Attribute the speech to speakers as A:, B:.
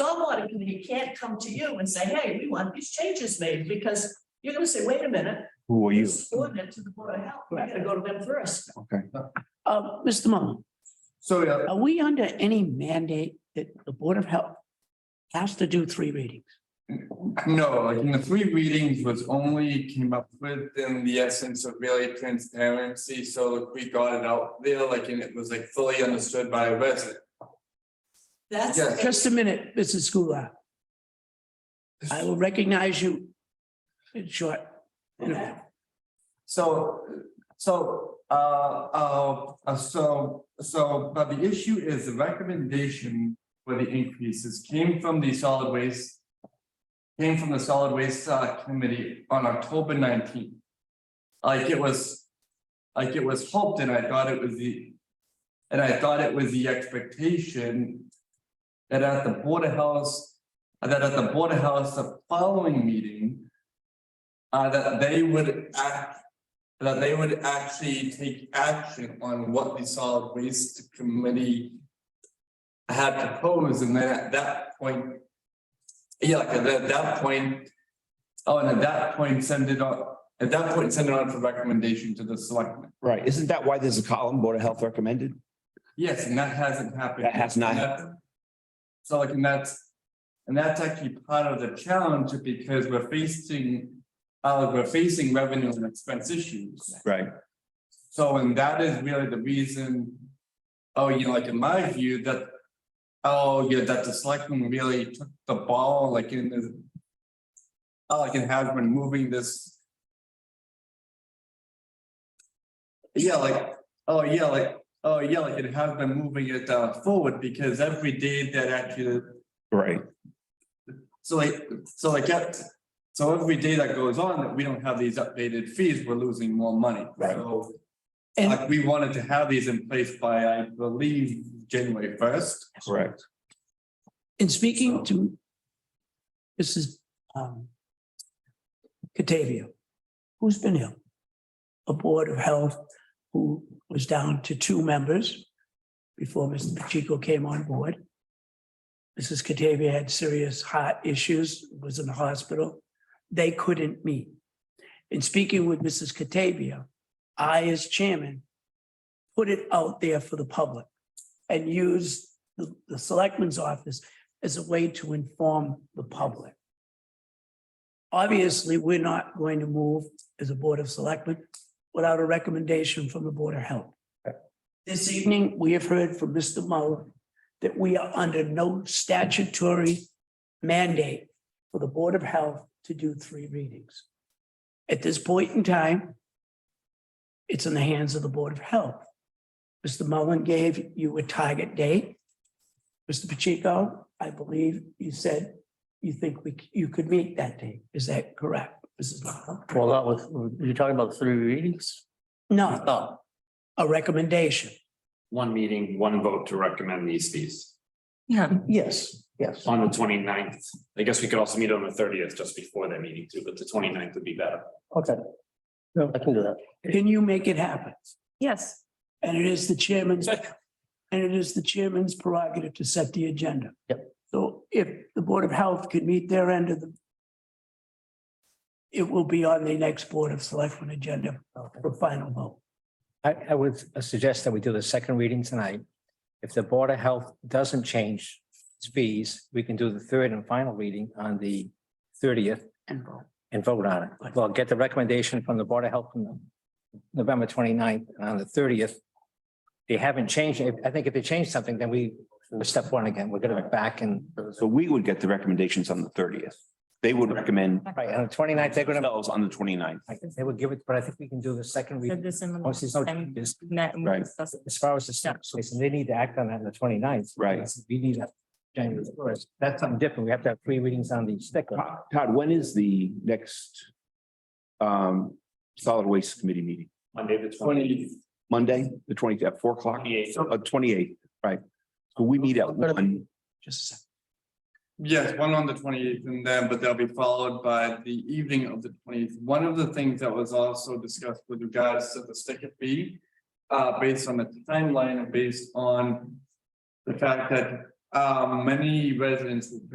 A: company can't come to you and say, hey, we want these changes made, because you're gonna say, wait a minute.
B: Who are you?
A: this Ordinance to the Board of Health, we gotta go to them first.
B: Okay,
C: Uh, Mr. Mullin,
D: So, yeah,
C: are we under any mandate that the Board of Health has to do three readings?
D: no, like in the three readings was only came up with in the essence of really transparency, so like we got it out there, like, and it was like fully understood by a resident.
A: That's.
D: Yes.
C: Just a minute, Mrs. Goulart. I will recognize you in short.
D: Okay. So, so, uh, uh, uh, so, so, but the issue is the recommendation for the increases came from the solid waste. Came from the solid waste uh, committee on October nineteenth. Like it was, like it was hoped and I thought it was the. And I thought it was the expectation. That at the border house, that at the border house, the following meeting uh, that they would act, that they would actually take action on what the solid waste committee had proposed, and then at that point, yeah, like at that- that point, oh, and at that point, send it on, at that point, send it on for recommendation to the selectmen.
B: right. Isn't that why there's a column, Board of Health recommended?
D: Yes, and that hasn't happened.
B: That has not
D: And that- So like, and that's, and that's actually part of the challenge, because we're facing, uh, we're facing revenue and expense issues.
B: Right.
D: So, and that is really the reason, oh, you know, like in my view, that, oh, yeah, that the selectmen really took the ball, like in the. Oh, like it has been moving this. Yeah, like, oh, yeah, like, oh, yeah, like it has been moving it uh forward, because every day that actually,
B: Right.
D: so like, so like, yeah. So every day that goes on, that we don't have these updated fees, we're losing more money,
B: Right.
D: so.
C: And
D: Like, we wanted to have these in place by, I believe, January first.
B: Correct.
C: in speaking to Mrs. um, Catavia, who's been ill? A Board of Health who was down to two members before Mr. Pacheco came on board. Mrs. Catavia had serious heart issues, was in the hospital. They couldn't meet. In speaking with Mrs. Catavia, I, as chairman, put it out there for the public and used the, the selectman's office as a way to inform the public. Obviously, we're not going to move as a Board of Selectmen without a recommendation from the Board of Health. This evening, we have heard from Mr. Mullin that we are under no statutory mandate for the Board of Health to do three readings. At this point in time, it's in the hands of the Board of Health. Mr. Mullin gave you a target date. Mr. Pacheco, I believe you said you think we, c- you could meet that date. Is that correct, Mrs. Mullin?
E: Well, that was, you're talking about three readings?
C: No,
E: Oh,
C: a recommendation.
F: one meeting, one vote to recommend these fees
C: Yes, yes.
F: on the 29th. I guess we could also meet on the thirtieth, just before that meeting too, but the 29th would be better.
E: okay. No, I can do that.
C: Can you make it happen?
G: Yes,
C: And it is the chairman's, and it is the chairman's prerogative to set the agenda. Yep. So if the Board of Health can meet their end of the it will be on the next Board of Selectmen agenda for final vote.
H: I, I would suggest that we do the second reading tonight. If the Board of Health doesn't change its fees, we can do the third and final reading on the thirtieth
C: And vote.
H: and vote on it. Well, get the recommendation from the Board of Health from November 29th and on the thirtieth. They haven't changed. it. I think if they change something, then we, we're step one again, we're gonna be back and,
B: So we would get the recommendations on the thirtieth. They would recommend
H: right, on the 29th, they're gonna,
B: themselves on the 29th.
H: I think they would give it, but I think we can do the second
G: said
H: reading.
G: this in the
H: Once there's no
G: last time
H: changes.
G: we met and we
B: Right.
G: discussed it.
H: as far as the steps, and they need to act on that on the 29th.
B: Right.
H: We need that January first. That's something different. We have to have three readings on the sticker.
B: Todd, Todd, when is the next um solid waste committee meeting?
F: Monday, the
D: Twenty,
B: Monday, the twentieth at four o'clock?
F: 28th.
B: Uh, twenty-eight, right. So we meet at one,
C: Just a second.
D: yes, one on the twenty eighth and then, but they'll be followed by the evening of the twenty eighth. One of the things that was also discussed with regards to the sticker fee. Uh, based on the timeline and based on the fact that, uh, many residents